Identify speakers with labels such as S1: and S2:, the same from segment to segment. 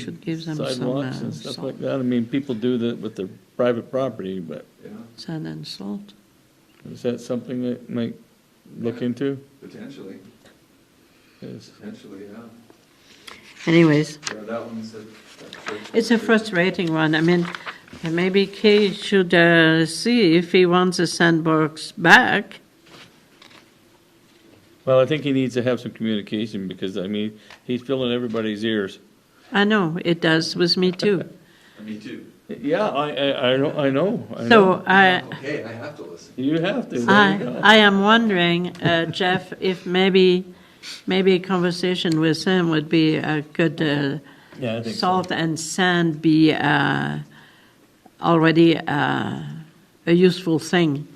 S1: Should give them some uh,
S2: sidewalks and stuff
S1: salt,
S2: like that. I mean, people do that with their private property, but
S1: sand and salt.
S2: is that something that might look into?
S3: Potentially,
S2: Is-
S3: potentially, yeah.
S1: Anyways,
S3: Yeah, that one's a. that's
S1: it's a frustrating one. I mean, uh, maybe Kay should uh, see if he wants the sandbox back.
S2: Well, I think he needs to have some communication because, I mean, he's filling everybody's ears.
S1: I know, it does with me too.
S3: Me too.
S2: Yeah, I, I, I know, I know. I
S1: So
S2: know.
S1: I,
S3: Okay, I have to listen.
S2: You have to. there you
S1: I,
S2: go.
S1: I am wondering, uh, Jeff, if maybe, maybe a conversation with him would be a good, uh,
S2: Yeah, I think so.
S1: salt and sand be uh, already uh, a useful thing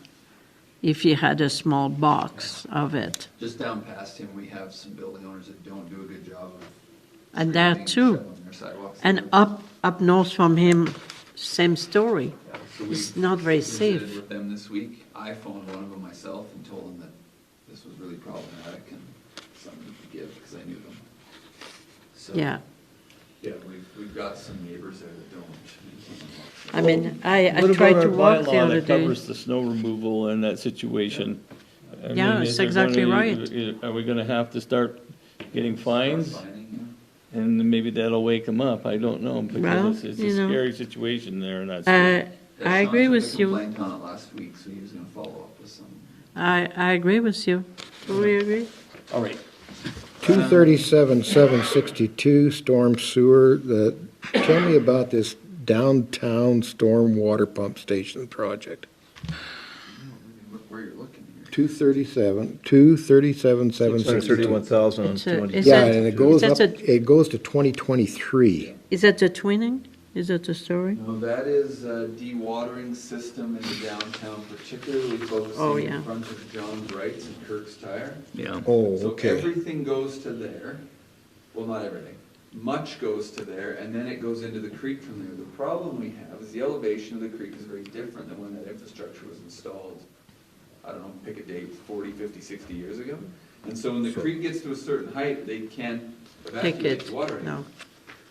S1: if he had a small box of it.
S3: Just down past him, we have some building owners that don't do a good job of.
S1: And there
S3: screening
S1: too.
S3: shoveling their sidewalks.
S1: And up, up north from him, same story.
S3: Yeah, so we
S1: It's not very
S3: visited
S1: safe.
S3: With them this week, I phoned one of them myself and told them that this was really problematic and something to give, because I knew them. So,
S1: Yeah,
S3: Yeah, we've, we've got some neighbors there that don't.
S1: I mean, I, I
S2: What about
S1: tried to
S2: our
S1: walk the
S2: bylaw
S1: other
S2: that
S1: day.
S2: Covers the snow removal and that situation. I mean,
S1: Yeah, it's
S2: is there
S1: exactly
S2: gonna-
S1: right.
S2: is- Are we gonna have to start getting fines?
S3: Finding,
S2: And then maybe that'll wake them up, I don't know,
S1: Well,
S2: because it's, it's
S1: you
S2: a
S1: know.
S2: scary situation there in that
S1: Uh,
S2: school.
S3: yeah.
S1: I agree with you.
S3: Complained on it last week, so he was gonna follow up with some.
S1: I, I agree with you. Do we agree?
S2: All right.
S4: 237, 762, storm sewer. The- Tell me about this downtown storm water pump station project.
S3: Look where you're looking here.
S4: 237, 237, 762.
S5: 631,000
S1: It's a- is
S4: Yeah,
S1: that-
S4: and it goes
S1: is
S4: up,
S1: that a-
S4: it goes to 2023.
S1: Is that the twinning? Is that the story?
S3: No, that is a dewatering system in the downtown, particularly
S1: Oh,
S3: focusing
S1: yeah.
S3: in front of John Wright's and Kirk's Tire.
S2: Yeah.
S4: Oh,
S3: So
S4: okay.
S3: everything goes to there, well, not everything, much goes to there, and then it goes into the creek from there. The problem we have is the elevation of the creek is very different than when that infrastructure was installed, I don't know, pick a date, 40, 50, 60 years ago. And so when the creek gets to a certain height, they can't
S1: Take
S3: evacuate
S1: it,
S3: the water.
S1: no.
S3: anymore.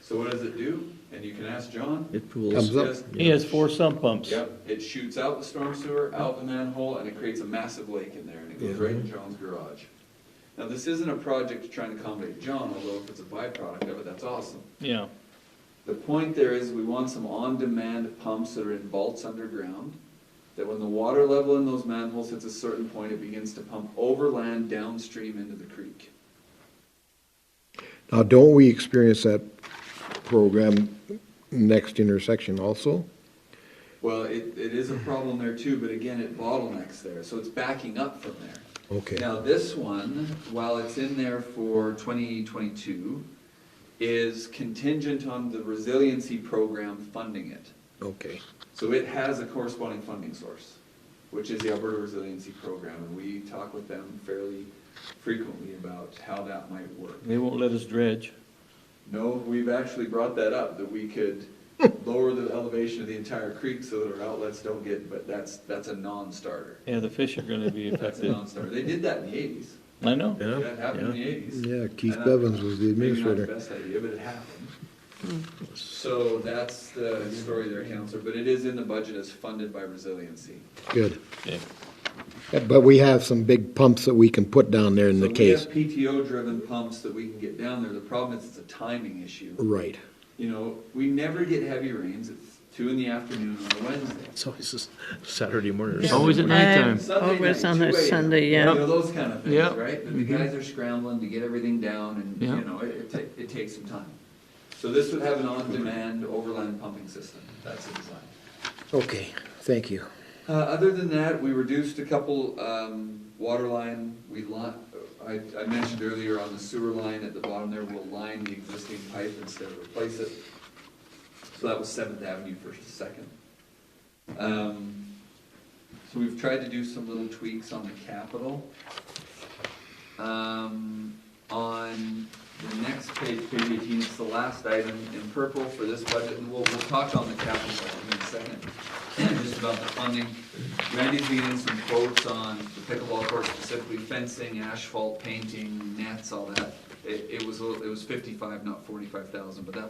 S3: So what does it do? And you can ask John.
S5: It
S4: Comes
S5: pools.
S4: up.
S3: Just
S2: He has four sump pumps.
S3: Yep, it shoots out the storm sewer, out the manhole, and it creates a massive lake in there, and it goes right in John's garage. Now, this isn't a project to try and accommodate John, although if it's a byproduct of it, that's awesome.
S2: Yeah,
S3: The point there is, we want some on-demand pumps that are in vaults underground, that when the water level in those manholes hits a certain point, it begins to pump overland downstream into the creek.
S4: Now, don't we experience that program next intersection also?
S3: Well, it, it is a problem there too, but again, it bottlenecks there, so it's backing up from there.
S4: Okay.
S3: Now, this one, while it's in there for 2022, is contingent on the resiliency program funding it.
S4: Okay.
S3: So it has a corresponding funding source, which is the Alberta Resiliency Program, and we talk with them fairly frequently about how that might work.
S2: they won't let us dredge.
S3: No, we've actually brought that up, that we could lower the elevation of the entire creek so that our outlets don't get, but that's, that's a non-starter.
S2: Yeah, the fish are gonna be
S3: That's a
S2: affected.
S3: non-starter. They did that in the eighties.
S2: I know.
S3: That happened in the eighties.
S4: Yeah, Keith Bevins was the administrator.
S3: Maybe not the best idea, but it happened. So that's the story there, Counselor, but it is in the budget as funded by resiliency.
S4: Good.
S2: Okay.
S4: But we have some big pumps that we can put down there in the case.
S3: So we have PTO-driven pumps that we can get down there. The problem is it's a timing issue.
S4: Right.
S3: You know, we never get heavy rains. It's two in the afternoon on a Wednesday.
S5: It's always this Saturday morning or
S1: Yeah.
S5: something.
S2: Always at nighttime.
S3: Sunday
S1: Always
S3: night,
S1: on a
S3: 2 a.m.,
S1: Sunday,
S3: You
S1: yeah.
S3: know, those kind of things,
S2: Yeah.
S3: right? But the guys are scrambling to get everything down and,
S2: Yeah.
S3: you know, it, it ta- it takes some time. So this would have an on-demand overland pumping system. That's the design.
S4: Okay, thank you.
S3: Uh, other than that, we reduced a couple, um, water line, we li- I, I mentioned earlier on the sewer line at the bottom there, we'll line the existing pipe instead of replace it. So that was Seventh Avenue versus Second. Um, so we've tried to do some little tweaks on the capital. Um, on the next page, page eighteen, it's the last item in purple for this budget, and we'll, we'll talk on the capital in a second, just about the funding. Randy's getting some quotes on the pickleball court specifically, fencing, asphalt, painting, nets, all that. It, it was, a little- it was fifty-five, not forty-five thousand, but that